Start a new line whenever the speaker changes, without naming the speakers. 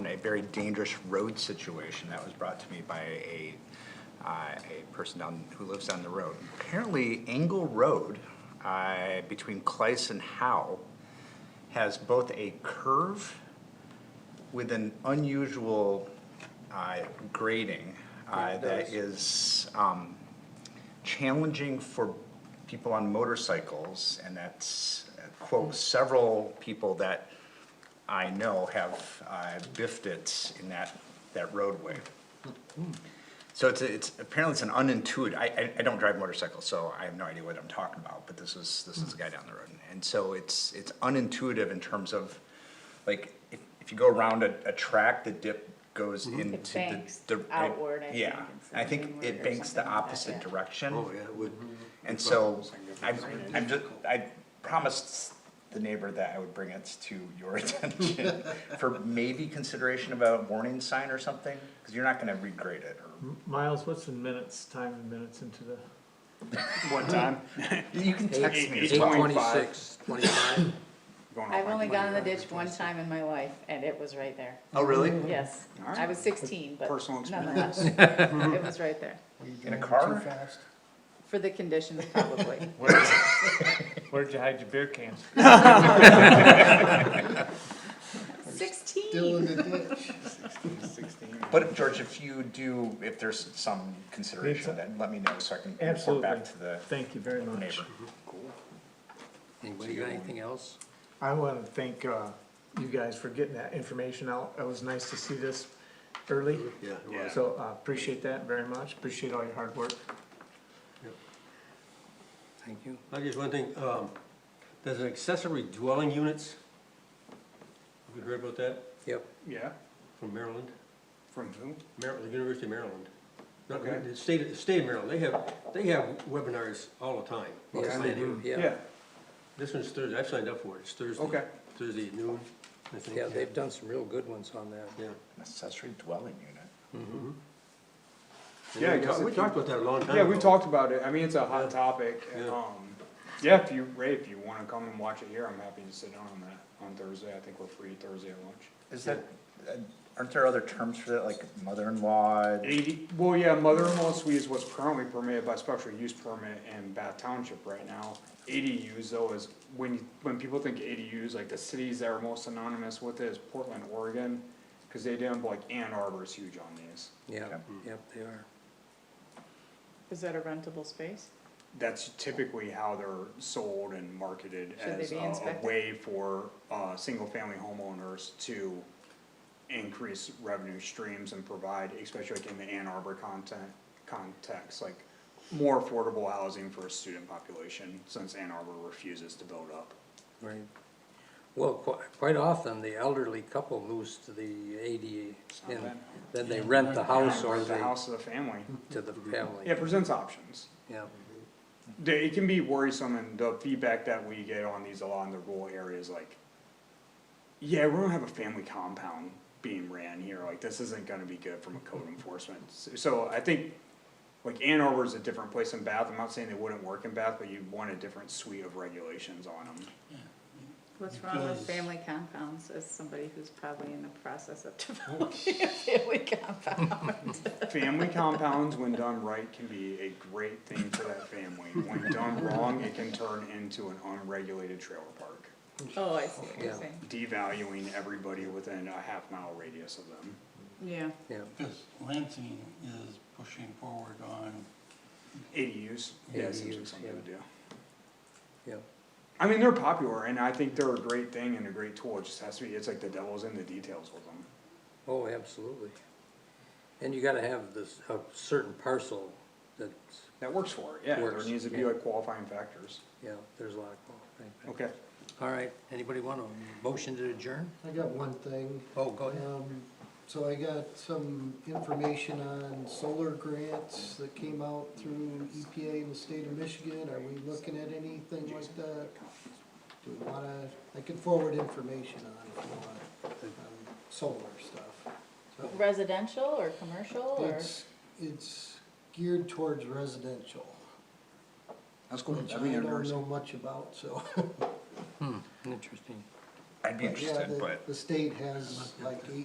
very dangerous road situation that was brought to me by a, uh, a person down, who lives down the road. Apparently, Engle Road, uh, between Clyce and Howe, has both a curve with an unusual uh, grading uh, that is um, challenging for people on motorcycles, and that's, uh, quote, several people that I know have uh, biffed it in that, that roadway. So it's, it's, apparently it's an unintuitive, I, I, I don't drive motorcycles, so I have no idea what I'm talking about, but this is, this is a guy down the road. And so it's, it's unintuitive in terms of, like, if, if you go around a, a track, the dip goes into
It
the.
banks
the-
outward, I think,
Yeah,
it's
I think
inward
it
or
banks the
something like that,
opposite
yeah.
direction.
Oh, yeah, it would.
And so, I, I'm just, I promised the neighbor that I would bring it to your attention for maybe consideration of a warning sign or something, because you're not gonna regrade it or.
Miles, what's in minutes, time in minutes into the,
What time?
You can text me as
Eight
well.
twenty-six, twenty-five?
Going
I've
off
only
on
gone in the ditch one time in my life, and it was right there.
Oh, really?
Yes, I was sixteen, but
Personal
nonetheless, it was right there.
In a car?
For the conditions, probably.
where'd you hide your beer cans?
Sixteen.
But George, if you do, if there's some consideration, then let me know so I can report
Absolutely,
back to the
thank you very much.
neighbor.
Anybody got anything else?
I wanna thank, uh, you guys for getting that information out, it was nice to see this early.
Yeah, it was.
So, uh, appreciate that very much, appreciate all your hard work.
Thank you. I just one thing, um, there's an accessory dwelling units. Have you heard about that
Yep,
Yeah,
from Maryland?
from who?
Maryland, the University of Maryland. Not,
Okay.
the state, the state of Maryland, they have, they have webinars all the time.
yes,
Online.
they do, yeah.
Yeah,
This one's Thursday, I've signed up for it, it's Thursday.
Okay.
Thursday at noon, I think.
Yeah, they've done some real good ones on that.
Yeah.
Accessory dwelling unit.
And
Yeah, I
we
guess
talked- We
if you-
talked about that a long time ago.
yeah, we talked about it, I mean, it's a hot topic, and,
Yeah.
um, yeah, if you, Ray, if you wanna come and watch it here, I'm happy to sit down on that, on Thursday, I think we're free Thursday at lunch.
Is that, uh, aren't there other terms for that, like mother-in-law?
Eighty, well, yeah, mother-in-law suite is what's currently permitted by special use permit in Bath Township right now. ADUs though is, when, you- when people think ADUs, like the cities that are most synonymous with it is Portland, Oregon, cause they did, like Ann Arbor is huge on these.
Yeah,
Okay.
yep, they are.
Is that a rentable space?
That's typically how they're sold and marketed
Should they
as a,
be
a
inspected?
way for, uh, single-family homeowners to increase revenue streams and provide, especially like in the Ann Arbor content, context, like more affordable housing for a student population, since Ann Arbor refuses to build up.
Right. Well, quite, quite often, the elderly couple moves to the ADA, and
bad.
then they rent the house or
Rent The
they,
house of the family.
to the
Yeah,
family,
it presents options.
yeah.
They- It can be worrisome and the feedback that we get on these a lot in the rural areas, like, yeah, we don't have a family compound being ran here, like, this isn't gonna be good from a code enforcement. S- So I think, like, Ann Arbor's a different place than Bath, I'm not saying they wouldn't work in Bath, but you want a different suite of regulations on them.
What's wrong with family compounds, as somebody who's probably in the process of developing a family compound?
Family compounds, when done right, can be a great thing for that family, when done wrong, it can turn into an unregulated trailer park,
Oh, I see what you're
Yeah.
saying.
devaluing everybody within a half mile radius of them.
Yeah,
Yeah,
Because Lansing is pushing forward on,
ADUs, yeah, it seems like
ADUs,
something
yeah.
to do.
yeah,
I mean, they're popular, and I think they're a great thing and a great tool, it just has to be, it's like the devil's in the details with them.
oh, absolutely. And you gotta have this, a certain parcel that's,
That works for it, yeah, there
Works,
needs to be
yeah.
like qualifying factors.
yeah, there's a lot of, qualifying.
Okay,
all right, anybody want a motion to adjourn?
I got one thing.
Oh, go ahead.
Um, So I got some information on solar grants that came out through EPA in the state of Michigan. Are we looking at anything like that? Do we wanna, I can forward information on it, if you want, on solar stuff. So
residential or commercial or?
It's, it's geared towards residential,
that's cool,
which
that'd
I
be
don't
interesting.
know much about, so.
Hmm, interesting.
I'd be
Yeah,
interested,
the-
but.
The state has like eight